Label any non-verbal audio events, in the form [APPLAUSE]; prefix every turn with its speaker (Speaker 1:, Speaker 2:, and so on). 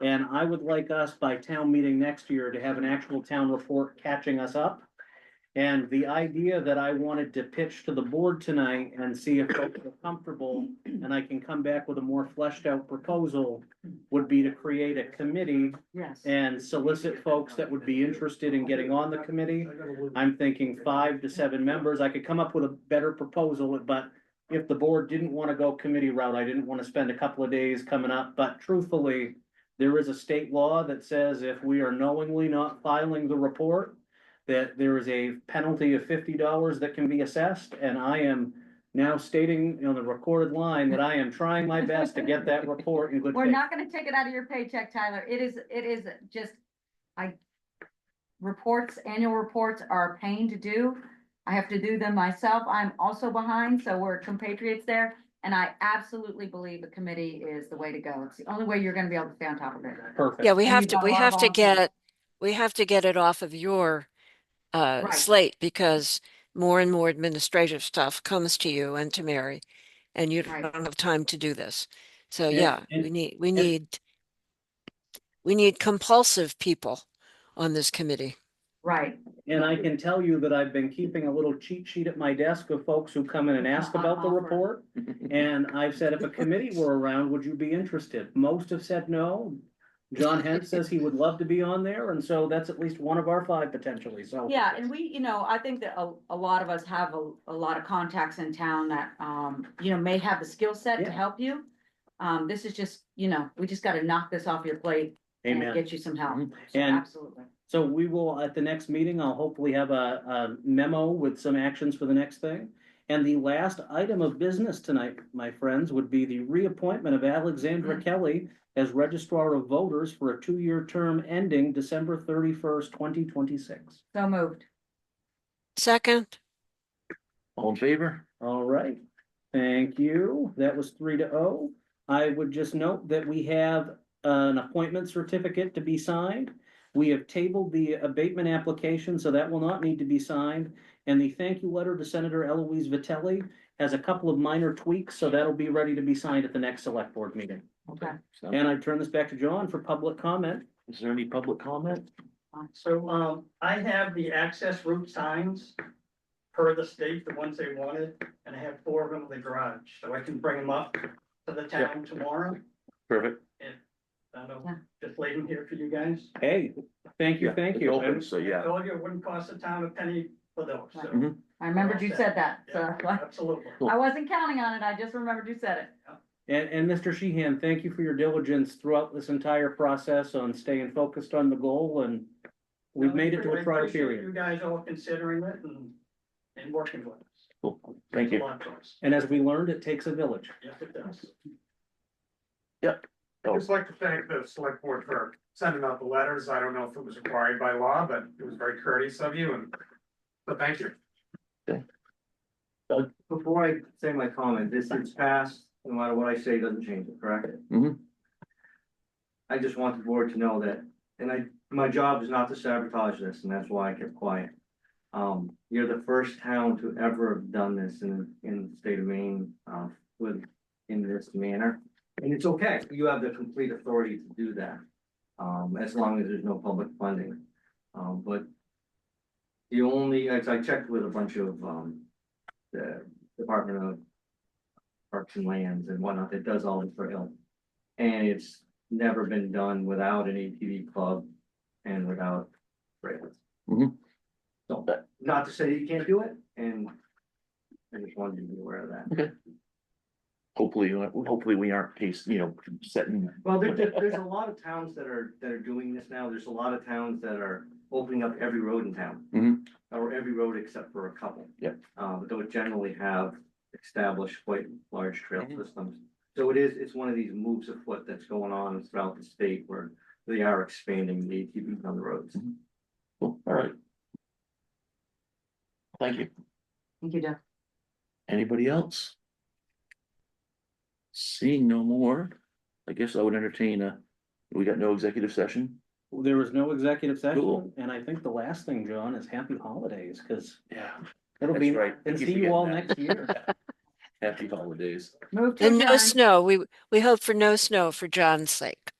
Speaker 1: And I would like us by town meeting next year to have an actual town report catching us up. And the idea that I wanted to pitch to the board tonight and see if folks are comfortable and I can come back with a more fleshed out proposal would be to create a committee
Speaker 2: Yes.
Speaker 1: and solicit folks that would be interested in getting on the committee. I'm thinking five to seven members. I could come up with a better proposal, but if the board didn't want to go committee route, I didn't want to spend a couple of days coming up, but truthfully, there is a state law that says if we are knowingly not filing the report, that there is a penalty of fifty dollars that can be assessed, and I am now stating on the recorded line that I am trying my best to get that report in good
Speaker 2: We're
Speaker 1: faith.
Speaker 2: not gonna take it out of your paycheck, Tyler. It is, it is just, I. Reports, annual reports are a pain to do. I have to do them myself. I'm also behind, so we're compatriots there. And I absolutely believe a committee is the way to go. It's the only way you're gonna be able to stay on top of it.
Speaker 1: Perfect.
Speaker 3: Yeah, we
Speaker 2: And
Speaker 3: have
Speaker 2: you've
Speaker 3: to,
Speaker 2: got a
Speaker 3: we
Speaker 2: lot of
Speaker 3: have to
Speaker 2: volunteers.
Speaker 3: get, we have to get it off of your uh,
Speaker 2: Right.
Speaker 3: slate because more and more administrative stuff comes to you and to Mary, and you
Speaker 2: Right.
Speaker 3: don't have time to do this. So
Speaker 1: And-
Speaker 3: yeah, we
Speaker 1: and-
Speaker 3: need, we need, we need compulsive people on this committee.
Speaker 2: Right.
Speaker 1: And I can tell you that I've been keeping a little cheat sheet at my desk of folks who come in and ask about the report. And I've said, if a committee were around, would you be interested? Most have said no. John Hent says he would love to be on there, and so that's at least one of our five potentially, so.
Speaker 2: Yeah, and we, you know, I think that a, a lot of us have a, a lot of contacts in town that, um, you know, may have the skill set
Speaker 1: Yeah.
Speaker 2: to help you. Um, this is just, you know, we just gotta knock this off your plate and
Speaker 1: Amen.
Speaker 2: get you some help. So
Speaker 1: And-
Speaker 2: Absolutely.
Speaker 1: So we will, at the next meeting, I'll hopefully have a, a memo with some actions for the next thing. And the last item of business tonight, my friends, would be the reappointment of
Speaker 2: Mm-hmm.
Speaker 1: Alexandra Kelly as Registrar of Voters for a two-year term ending December thirty-first, twenty twenty-six.
Speaker 2: So moved.
Speaker 3: Second,
Speaker 4: All in favor?
Speaker 1: All right, thank you. That was three to oh. I would just note that we have an appointment certificate to be signed. We have tabled the abatement application, so that will not need to be signed. And the thank you letter to Senator Eloise Vitelli has a couple of minor tweaks, so that'll be ready to be signed at the next select board meeting.
Speaker 2: Okay.
Speaker 4: So,
Speaker 1: And I turn this back to John for public comment.
Speaker 4: Is there any public comment?
Speaker 5: So, um, I have the access route signs per the state, the ones they wanted, and I have four of them in the garage, so I can bring them up to the town tomorrow.
Speaker 4: Perfect.
Speaker 5: I don't
Speaker 2: Yeah.
Speaker 5: know, just leave them here for you guys.
Speaker 1: Hey, thank you,
Speaker 4: Yeah,
Speaker 1: thank
Speaker 4: it's
Speaker 1: you.
Speaker 4: open, So,
Speaker 5: I
Speaker 4: yeah,
Speaker 5: told you it wouldn't cost the town a penny for those, so.
Speaker 4: Mhm.
Speaker 2: I remembered you said that, so
Speaker 5: Yeah,
Speaker 2: that's why-
Speaker 5: Absolutely.
Speaker 4: Cool.
Speaker 2: [LAUGHS] I wasn't counting on it. I just remembered you said it.
Speaker 1: And, and Mr. Sheehan, thank you for your diligence throughout this entire process on staying focused on the goal and we've made it to
Speaker 5: I
Speaker 1: a trial
Speaker 5: appreciate
Speaker 1: period.
Speaker 5: You guys all considering it and, and working with us.
Speaker 4: cool. Thank
Speaker 5: Means a
Speaker 4: you.
Speaker 5: lot to us.
Speaker 1: And as we learned, it takes a village.
Speaker 5: Yes, it does.
Speaker 6: I'd just like to thank the select board for sending out the letters. I don't know if it was required by law, but it was very courteous of you and. But thank you.
Speaker 7: Before I say my comment, this is passed, no matter what I say, doesn't change it, correct?
Speaker 4: Mhm.
Speaker 7: I just want the board to know that, and I, my job is not to sabotage this, and that's why I kept quiet. Um, you're the first town to ever have done this in, in the state of Maine, um, with, in this manner. And it's okay, you have the complete authority to do that, um, as long as there's no public funding. Um, but the only, as I checked with a bunch of, um, the Department of Parks and Lands and whatnot that does all this for Hill. And it's never been done without an ATV club and without trails.
Speaker 4: Mhm.
Speaker 7: So, not to say you can't do it, and I just wanted you to be aware of that.
Speaker 4: Hopefully, uh, hopefully we aren't case, you know, setting.
Speaker 7: Well, there, there- there's a lot of towns that are, that are doing this now, there's a lot of towns that are opening up every road in town.
Speaker 4: Mhm.
Speaker 7: Or every road except for a couple.
Speaker 4: Yep.
Speaker 7: Uh, but they'll generally have established quite large trail
Speaker 4: Mhm.
Speaker 7: systems. So it is, it's one of these moves afoot that's going on throughout the state where they are expanding the ATVs on the roads.
Speaker 4: Cool, All right. Thank you.
Speaker 2: Thank you, Jeff.
Speaker 4: Anybody else? Seeing no more, I guess I would entertain a, we got no executive session?
Speaker 1: There was no executive session.
Speaker 4: Cool.
Speaker 1: And I think the last thing, John, is happy holidays, because
Speaker 4: Yeah.
Speaker 1: it'll
Speaker 4: That's
Speaker 1: be,
Speaker 4: right.
Speaker 1: and
Speaker 4: You
Speaker 1: see you
Speaker 4: forget
Speaker 1: all
Speaker 4: that.
Speaker 1: next year.
Speaker 4: [LAUGHS] Happy holidays.
Speaker 2: Move to
Speaker 3: and no
Speaker 2: adjourn.
Speaker 3: snow. We, we hope for no snow for John's sake.